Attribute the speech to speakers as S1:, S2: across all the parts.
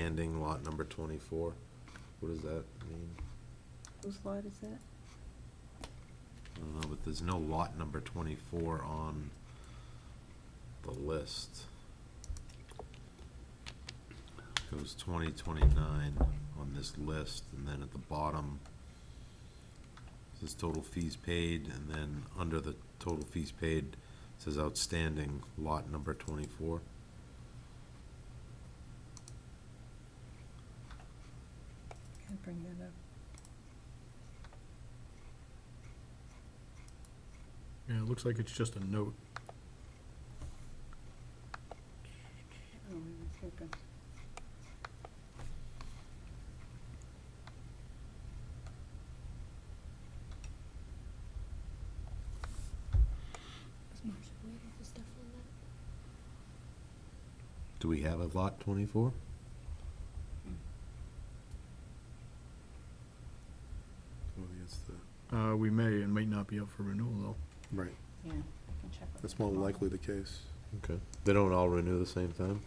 S1: standing lot number twenty-four. What does that mean?
S2: Whose lot is that?
S1: I don't know, but there's no lot number twenty-four on the list. Goes twenty, twenty-nine on this list, and then at the bottom, says total fees paid, and then under the total fees paid, says outstanding lot number twenty-four.
S2: Can I bring that up?
S3: Yeah, it looks like it's just a note.
S2: Oh, I was looking.
S4: Is Marcia aware of the stuff on that?
S1: Do we have a lot twenty-four?
S5: Well, that's the,
S3: Uh, we may and might not be up for renewal, though.
S5: right,
S2: Yeah, I can check. with
S5: that's more
S2: my mom.
S5: likely the case.
S1: Okay. They don't all renew the same time?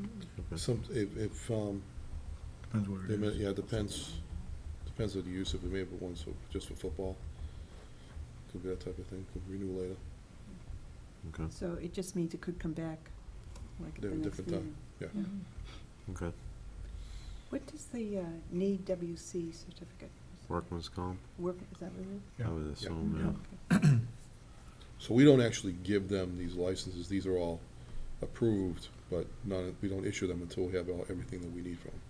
S2: Mm-hmm.
S1: Okay.
S5: Some, if, if, um,
S3: Depends what
S5: they
S3: it
S5: may-
S3: is.
S5: yeah, it depends, depends on the use, if we may have one, so, just for football. Could be that type of thing, could renew later.
S1: Okay,
S2: So it just means it could come back, like at the
S5: At a
S2: next
S5: different time,
S2: meeting.
S5: yeah.
S1: okay.
S2: What does the uh, need WC certificate?
S1: Workman's comp,
S2: Work, Oh, is that what it is?
S1: I
S3: Yeah.
S1: would assume,
S3: Yeah.
S1: yeah.
S2: Okay.
S5: So we don't actually give them these licenses, these are all approved, but none, we don't issue them until we have all, everything that we need from them.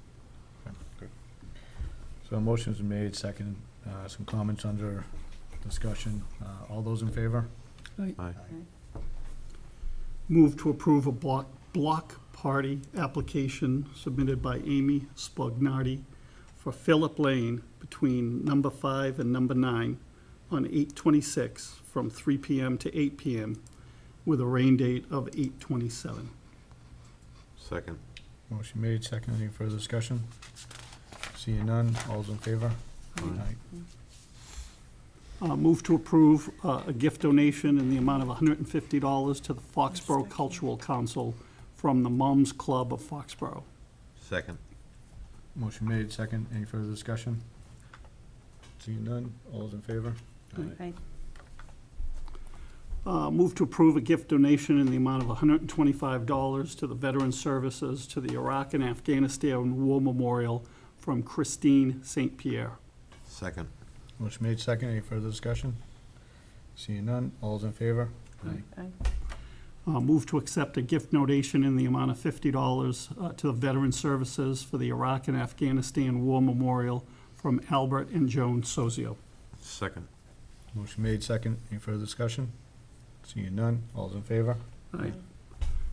S3: So a motion's been made, second, uh, some comments under discussion. Uh, all those in favor?
S1: Aye.
S6: Move to approve a block, block party application submitted by Amy Spugnardi for Phillip Lane between number five and number nine on eight twenty-six from three PM to eight PM with a rain date of eight twenty-seven.
S1: Second.
S3: Motion made, second, any further discussion? Seeing none, all's in favor?
S1: Aye.
S6: Uh, move to approve, uh, a gift donation in the amount of hundred and fifty dollars to the Foxborough Cultural Council from the Moms Club of Foxborough.
S1: Second.
S3: Motion made, second, any further discussion? Seeing none, all's in favor?
S2: Aye.
S6: Uh, Move to approve a gift donation in the amount of $125 to the Veteran Services to the Iraq and Afghanistan War Memorial from Christine St. Pierre.
S1: Second.
S3: Motion made, second, any further discussion? Seeing none, all's in favor?
S2: Aye.
S6: Uh, Move to accept a gift donation in the amount of $50 uh, to the Veteran Services for the Iraq and Afghanistan War Memorial from Albert and Joan Sozio.
S1: Second.
S3: Motion made, second, any further discussion? Seeing none, all's in favor?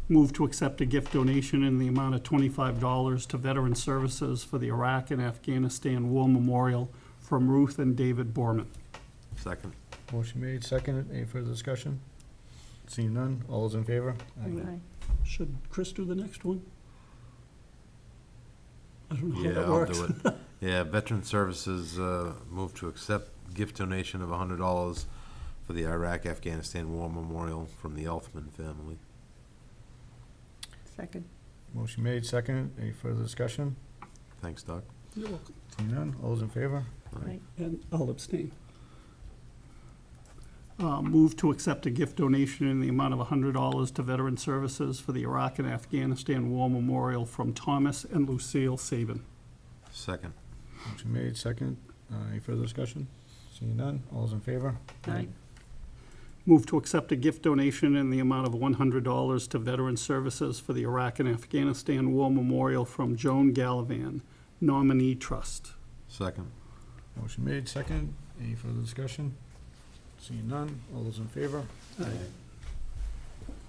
S6: Move to accept a gift donation in the amount of twenty-five dollars to Veteran Services for the Iraq and Afghanistan War Memorial from Ruth and David Borman.
S1: Second.
S3: Motion made, second, any further discussion? Seeing none, all's in favor?
S2: Aye.
S6: Should Chris do the next one? I don't know how
S1: Yeah,
S6: that
S1: I'll
S6: works.
S1: do it. Yeah, Veteran Services, uh, move to accept gift donation of a hundred dollars for the Iraq Afghanistan War Memorial from the Elfman family.
S2: Second.
S3: Motion made, second, any further discussion?
S1: Thanks, Doc.
S3: Seeing none, all's in favor?
S2: Aye.
S6: And I'll abstain. Uh, Move to accept a gift donation in the amount of $100 to Veteran Services for the Iraq and Afghanistan War Memorial from Thomas and Lucille Saban.
S1: Second.
S3: Motion made, second, uh, any further discussion? Seeing none, all's in favor?
S2: Aye.
S6: Move to accept a gift donation in the amount of $100 to Veteran Services for the Iraq and Afghanistan War Memorial from Joan Gallivan, nominee trust.
S1: Second.
S3: Motion made, second, any further discussion? Seeing none, all those in favor?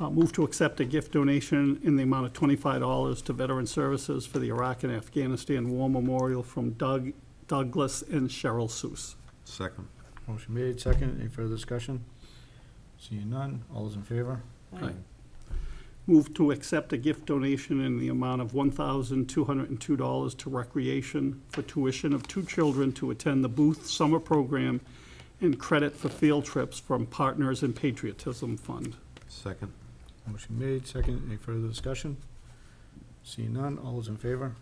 S6: Uh, Move to accept a gift donation in the amount of $25 to Veteran Services for the Iraq and Afghanistan War Memorial from Doug Douglas and Cheryl Seuss.
S1: Second.
S3: Motion made, second, any further discussion? Seeing none, all those in favor?
S2: Aye.
S6: Move to accept a gift donation in the amount of $1,202 to Recreation for tuition of two children to attend the Booth Summer Program and credit for field trips from Partners in Patriotism Fund.
S1: Second.
S3: Motion made, second, any further discussion? Seeing none, all those in favor?